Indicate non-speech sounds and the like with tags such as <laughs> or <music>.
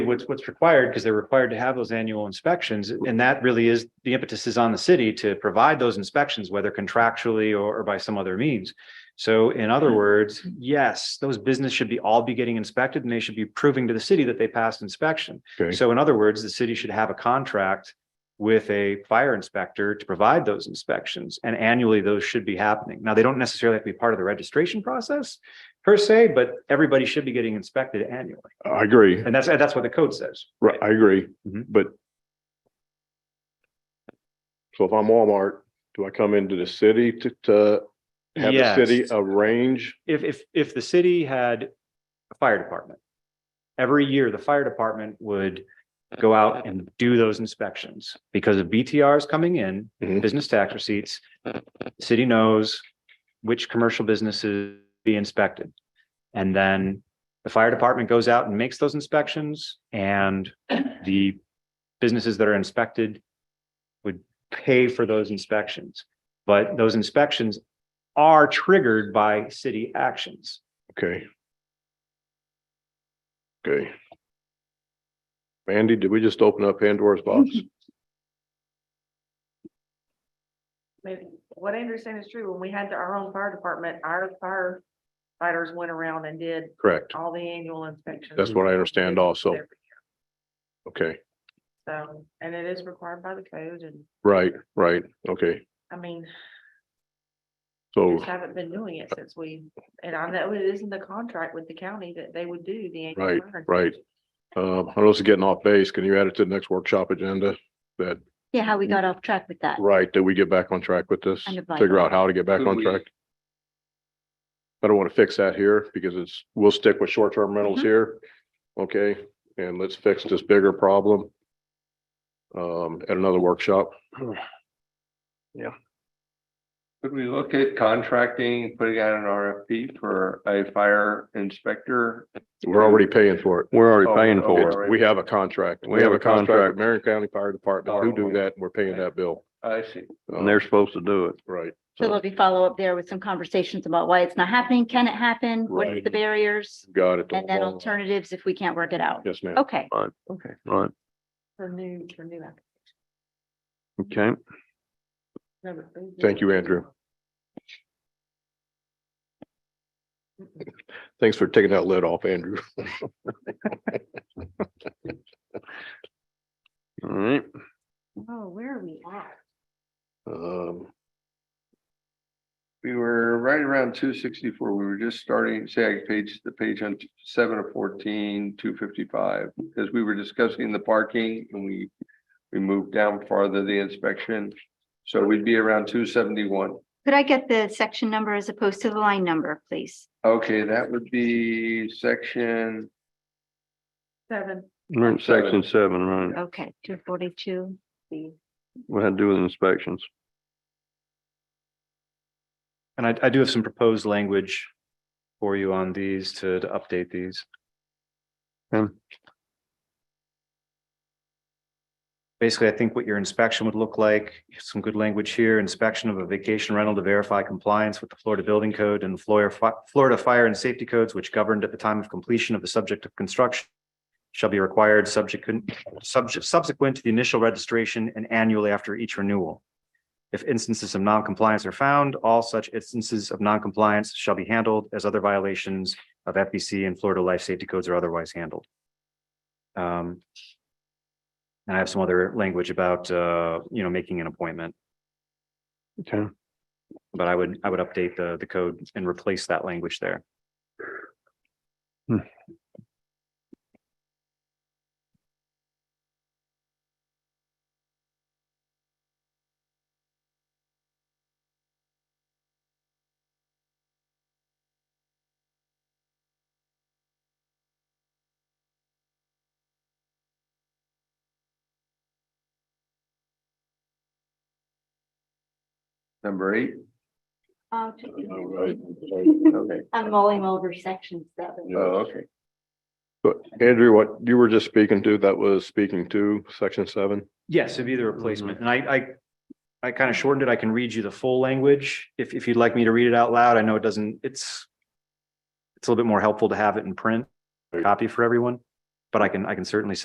what's, what's required, because they're required to have those annual inspections, and that really is, the impetus is on the city to provide those inspections, whether contractually or, or by some other means. So in other words, yes, those business should be, all be getting inspected, and they should be proving to the city that they passed inspection. Okay. So in other words, the city should have a contract with a fire inspector to provide those inspections, and annually, those should be happening. Now, they don't necessarily have to be part of the registration process per se, but everybody should be getting inspected annually. I agree. And that's, that's what the code says. Right, I agree, Mhm. but so if I'm Walmart, do I come into the city to, to have the Yes. city arrange? If, if, if the city had a fire department, every year, the fire department would go out and do those inspections because of BTRs coming in, Mhm. business tax receipts. the City knows which commercial businesses be inspected. And then the fire department goes out and makes those inspections and the businesses that are inspected would pay for those inspections. But those inspections are triggered by city actions. Okay. Okay. Randy, did we just open up Pandora's box? mean, what I understand is true, when we had our own fire department, our firefighters went around and did Correct. all the annual inspections. That's what I understand also. Okay, So, and it is required by the code and, right, right, okay. I mean, we So, just haven't been doing it since we, and I know it is in the contract with the county that they would do the. annual Right, fire right. um, I know this is getting off base. Can you add it to the next workshop agenda? That, Yeah, how we got off track with that. right, that we get back on track with this? And the Figure Bible. out how to get back Could on we- track? I don't want to fix that here because it's, we'll stick with short-term rentals Mhm. here. Okay, and let's fix this bigger problem. Um, at another workshop. Could we look at contracting, putting out an RFP for a fire inspector? We're already paying for it. We're already Oh, paying for okay. it. We have a contract. We have a contract. with Marion County Fire Department who do that. and We're paying that bill. I see. And they're supposed to do it. Right. So, So there'll be follow up there with some conversations about why it's not happening. Can it happen? Right. What's the barriers? got it. And then alternatives if we can't work it out. Yes, ma'am. Okay, Right, okay. Right, For new, for new. app- okay. no, but they do Thank it. you, Andrew. Thanks for taking that lid off, Andrew. All right. Oh, where are we at? Um, We were right around two sixty-four. We were just starting, say, I page, the page on seven of fourteen, two fifty-five. Because we were discussing the parking and we, we moved down farther the inspection. So we'd be around two seventy-one. could I get the section number as opposed to the line number, please? Okay, that would be section, Seven, We're in section seven, right? Okay, two forty-two. What had to do with inspections. And I, I do have some proposed language for you on these to, to update these. Um. Basically, I think what your inspection would look like, some good language here, inspection of a vacation rental to verify compliance with the Florida Building Code and Florida, Fi- Florida Fire and Safety Codes, which governed at the time of completion of the subject of construction shall be required subject, subject, subsequent to the initial registration and annually after each renewal. If instances of noncompliance are found, all such instances of noncompliance shall be handled as other violations of FBC and Florida Life Safety Codes are otherwise handled. Um, And I have some other language about, uh, you know, making an appointment, Okay. but I would, I would update the, the code and replace that language there. number eight. Okay. Uh, <laughs> I'm mulling over section seven. Oh, okay. But Andrew, what you were just speaking to, that was speaking to section seven? Yes, it'd be the replacement. And I, I, I kind of shortened it. I can read you the full language. If, if you'd like me to read it out loud, I know it doesn't, it's, it's a little bit more helpful to have it in print, copy for everyone. But I can, I can certainly